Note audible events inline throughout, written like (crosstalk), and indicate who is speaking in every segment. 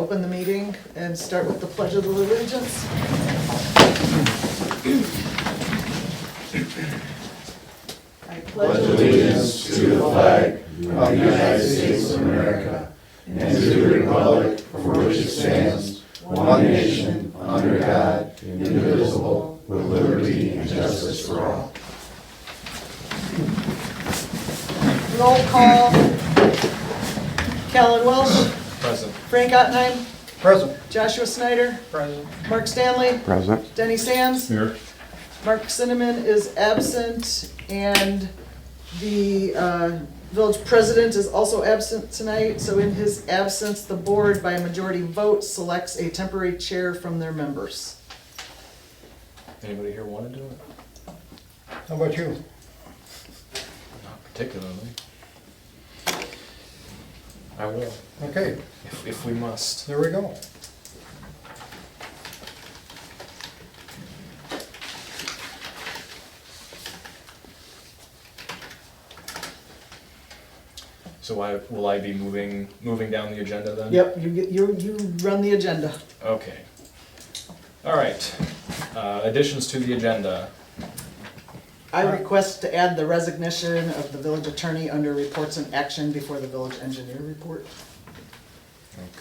Speaker 1: open the meeting and start with the pledge of allegiance. I pledge allegiance to the flag
Speaker 2: of the United States of America and to the republic for which it stands, one nation, under God, indivisible, with liberty and justice for all.
Speaker 1: Roll call. Callan Welsh,
Speaker 3: Present.
Speaker 1: Frank Ottenheim,
Speaker 3: Present.
Speaker 1: Joshua Snyder,
Speaker 3: Present.
Speaker 1: Mark Stanley,
Speaker 4: Present.
Speaker 1: Denny Sands.
Speaker 3: Here.
Speaker 1: Mark Cinnamon is absent, and the uh, village president is also absent tonight. So in his absence, the board, by a majority vote, selects a temporary chair from their members.
Speaker 3: Anybody here want to do it?
Speaker 2: How about you?
Speaker 3: Not particularly. I will,
Speaker 2: Okay,
Speaker 3: if, if we must.
Speaker 2: there we go.
Speaker 3: So I, will I be moving, moving down the agenda then?
Speaker 1: Yep, you, get- you, you run the agenda.
Speaker 3: Okay. All right, uh, additions to the agenda.
Speaker 1: I request to add the resignation of the village attorney under reports and action before the village engineer report.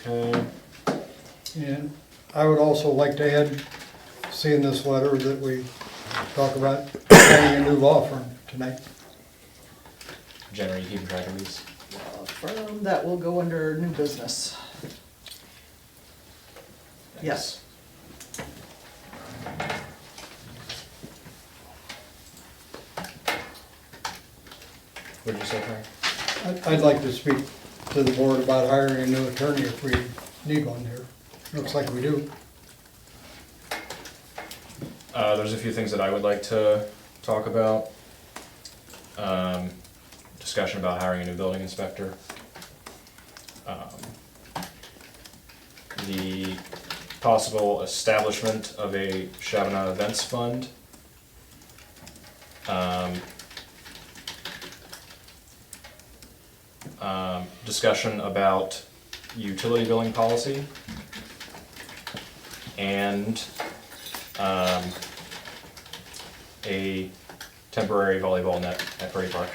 Speaker 3: Okay,
Speaker 2: And I would also like to add, seeing this letter that we talk about finding a new law firm tonight.
Speaker 3: generate heat and batteries.
Speaker 1: Uh, From that will go under new business. Yes.
Speaker 3: What did you say, Frank?
Speaker 2: I'd- I'd like to speak to the board about hiring a new attorney if we need one here. Looks like we do.
Speaker 3: Uh, there's a few things that I would like to talk about. Um, discussion about hiring a new building inspector. Um, The possible establishment of a Chaminade Events Fund. Um, um, discussion about utility billing policy. And um, a temporary volleyball net at Prairie Park.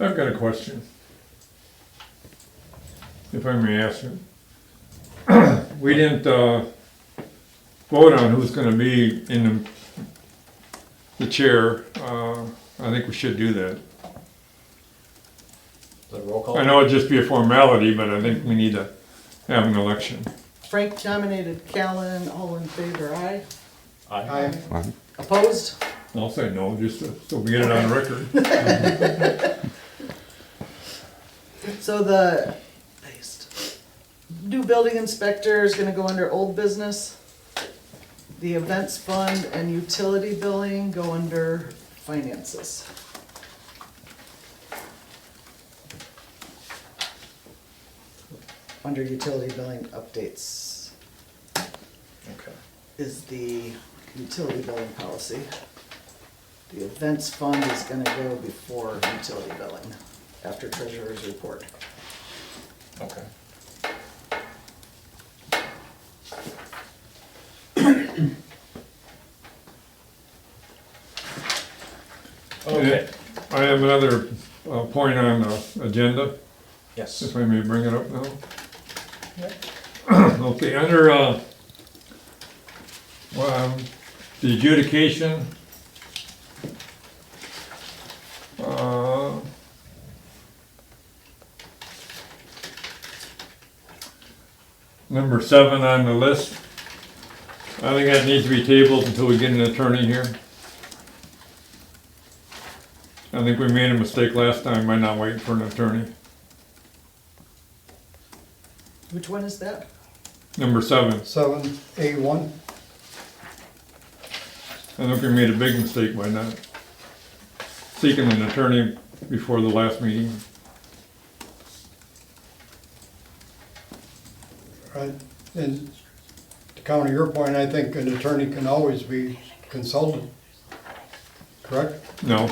Speaker 5: I've got a question. If I may ask it. (clears throat) We didn't, uh, vote on who's gonna be in the, the chair, uh, I think we should do that.
Speaker 3: The roll call?
Speaker 5: I know it'd just be a formality, but I think we need to have an election.
Speaker 1: Frank nominated Callan, all in favor, aye?
Speaker 3: Aye.
Speaker 2: I,
Speaker 1: Opposed?
Speaker 5: I'll say no, just so- so we get it on record.
Speaker 1: So the new building inspector is gonna go under old business. The events fund and utility billing go under finances. Under utility billing updates
Speaker 3: Okay.
Speaker 1: is the utility billing policy. The events fund is gonna go before utility billing, after treasurer's report.
Speaker 3: Okay. Okay,
Speaker 5: I have another, uh, point on the agenda.
Speaker 3: yes,
Speaker 5: If I may bring it up now? (clears throat) Okay, under, uh, well, um, the adjudication, uh, number seven on the list, I think that needs to be tabled until we get an attorney here. I think we made a mistake last time by not waiting for an attorney.
Speaker 1: Which one is that?
Speaker 5: Number seven.
Speaker 2: seven, A one,
Speaker 5: I think we made a big mistake by not seeking an attorney before the last meeting.
Speaker 2: right? And to counter your point, I think an attorney can always be consulted, correct?
Speaker 5: No,